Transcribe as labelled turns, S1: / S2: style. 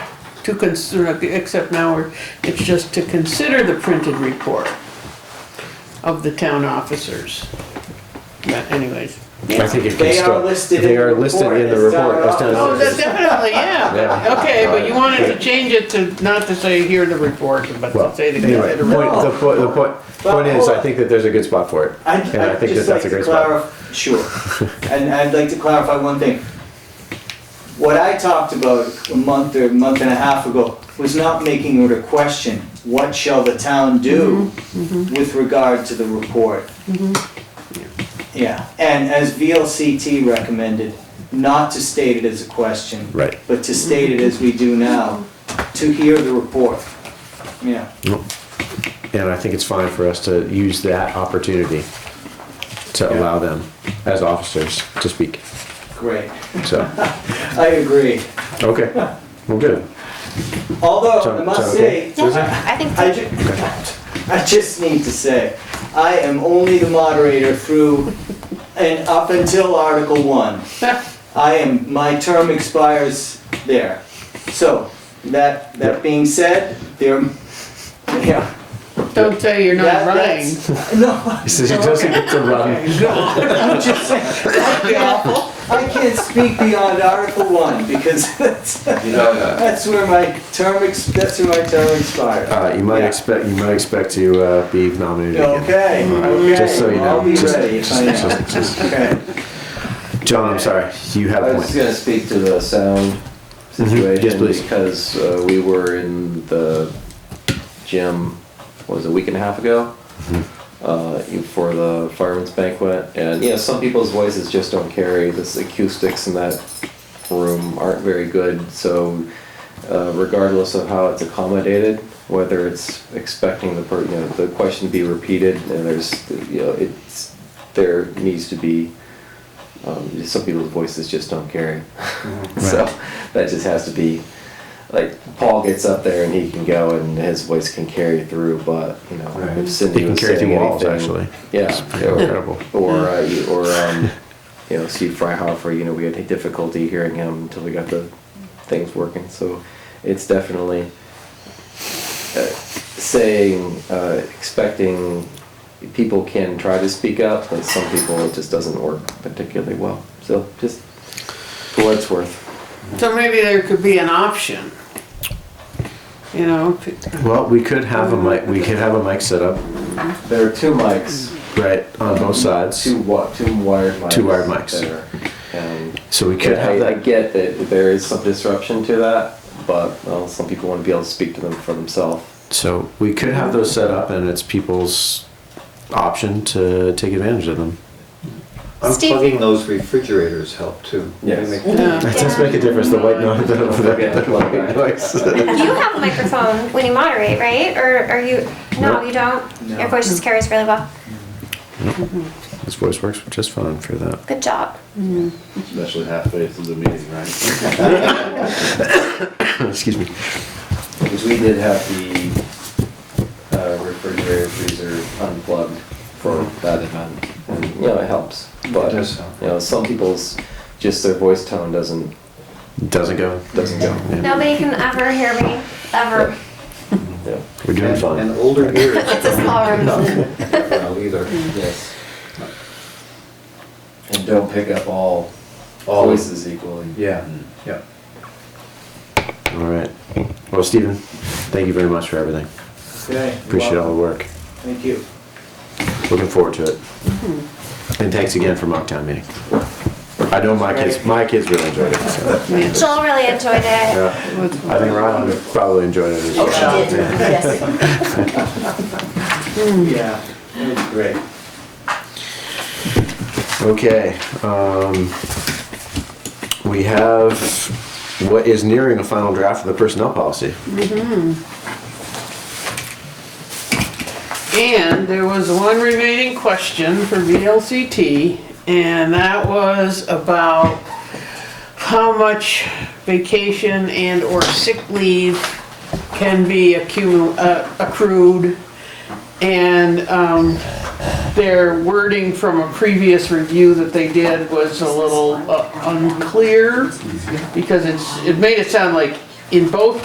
S1: to consider, except now we're, it's just to consider the printed report of the town officers. But anyways.
S2: I think it can
S3: They
S2: still.
S3: are listed
S2: They
S3: in
S2: are
S3: the
S2: listed
S3: report.
S2: in the
S3: It's not
S2: report. That's
S3: an
S1: Oh,
S2: not-
S1: that definitely, yeah.
S2: Yeah.
S1: Okay, but you wanted to change it to, not to say hear the report, but
S2: Well,
S1: to say the
S2: anyway, the
S1: consider.
S2: point, the point, the point, point is,
S3: hold
S2: I
S3: on.
S2: think that there's a good spot for it.
S3: I'd,
S2: And I
S3: I'd
S2: think that
S3: just
S2: that's
S3: like
S2: a
S3: to
S2: great spot.
S3: clarify, sure, and I'd like to clarify one thing. What I talked about a month or month and a half ago was not making it a question, what shall the town do with regard to the report? Yeah, and as VLCT recommended, not to state it as a question.
S2: Right.
S3: But to state it as we do now, to hear the report, yeah.
S2: And I think it's fine for us to use that opportunity to
S3: Yeah.
S2: allow them as officers to speak.
S3: Great,
S2: So,
S3: I agree.
S2: okay, well, good.
S3: Although, Oh, I
S2: Sound-
S3: must
S2: sound
S3: say,
S2: okay?
S4: I think
S3: I ju- I just need to say, I am only the moderator through and up until Article One. I am, my term expires there. So, that, that
S2: Yep.
S3: being said, there, yeah.
S1: Don't say you're not
S3: that-
S1: running.
S3: that's- No,
S2: He doesn't get to run.
S3: I'm just saying, that'd be awful. I can't speak beyond Article One because that's,
S5: You know that.
S3: that's where my term, ex- that's where my term expires.
S2: Uh, you might
S3: Yeah.
S2: expect, you might expect to, uh, be nominated again.
S3: Okay, okay.
S2: Just so you know.
S3: I'll be
S2: Just-
S3: ready if I
S2: just-
S3: am.
S2: just- just-
S3: Okay.
S2: John, I'm sorry, you have
S5: I
S2: a
S5: was just
S2: point.
S5: gonna speak to the sound Mm-hmm.
S2: Yes,
S5: situation
S2: please.
S5: because uh, we were in the gym, what was it, a week and a half ago? Uh, for the fireman's banquet and, you know, some people's voices just don't carry, this acoustics in that room aren't very good, so uh, regardless of how it's accommodated, whether it's expecting the, per- you know, the question to be repeated and there's, you know, it's, there needs to be um, some people's voices just don't carry. so that just has to be like Paul gets up there and he can go and his voice can carry through, but you know
S2: Right.
S5: if Cindy
S2: They can
S5: was
S2: carry through
S5: saying
S2: walls,
S5: anything-
S2: actually.
S5: yeah, or-
S2: Incredible.
S5: or uh, you- or um, you know Steve Freihofer, you know we had difficulty hearing him until we got the things working. So it's definitely uh, saying uh, expecting people can try to speak up, but some people it just doesn't work particularly well. So just for what it's worth,
S1: So maybe there could be an option. You know, to-
S2: Well, we could have a mic, we could have a mic set up,
S5: there are two mics,
S2: right, on both sides.
S5: two wa- two wired mics,
S2: Hmm.
S5: um,
S2: Two wired mics.
S5: there, and
S2: So we could
S5: Yeah,
S2: have
S5: I, I
S2: that,
S5: get that there is some disruption to that, but well, some people want to be able to speak to them for themselves.
S2: so we could have those set up and it's people's option to take advantage of them.
S4: Steve-
S6: Unplugging those refrigerators help too.
S5: Yes.
S6: They make-
S1: yeah.
S2: It does make a difference, the white noise, the
S5: the white
S2: noise.
S4: you have a microphone when you moderate, right? Or are you? No,
S2: Nope.
S4: you don't.
S3: No.
S4: Your voice just carries really well.
S2: This voice works just fine for that.
S4: Good job.
S6: Especially halfway through the meeting, right?
S2: Excuse me.
S5: Because we did have the uh, refrigerator freezer unplugged for that event, and you know it helps. But
S6: It does help.
S5: you know some people's just their voice tone doesn't
S2: Doesn't go.
S5: doesn't go.
S2: Yeah.
S4: Nobody can ever hear me ever.
S5: Yeah.
S2: We're doing
S6: And-
S2: fine.
S6: And older ears
S4: It's a small room.
S6: don't pick that well either.
S5: Yes. And don't pick up all all voices equally.
S6: Yeah, yeah.
S2: All right. Well, Stephen, thank you very much for everything.
S3: Okay.
S2: Appreciate all the work.
S3: Thank you.
S2: Looking forward to it. And thanks again for mock town meeting. I know my kids, my kids really enjoyed it. so,
S4: Joel really enjoyed it.
S2: yeah. I think Ron probably enjoyed it as well.
S3: Yeah.
S7: yes.
S3: Yeah, it was great.
S2: Okay, um, we have what is nearing a final draft of the personnel policy.
S1: And there was one remaining question for VLCT, and that was about how much vacation and or sick leave can be accumu- uh, accrued. And, um, their wording from a previous review that they did was a little uh, unclear because it's, it made it sound like in both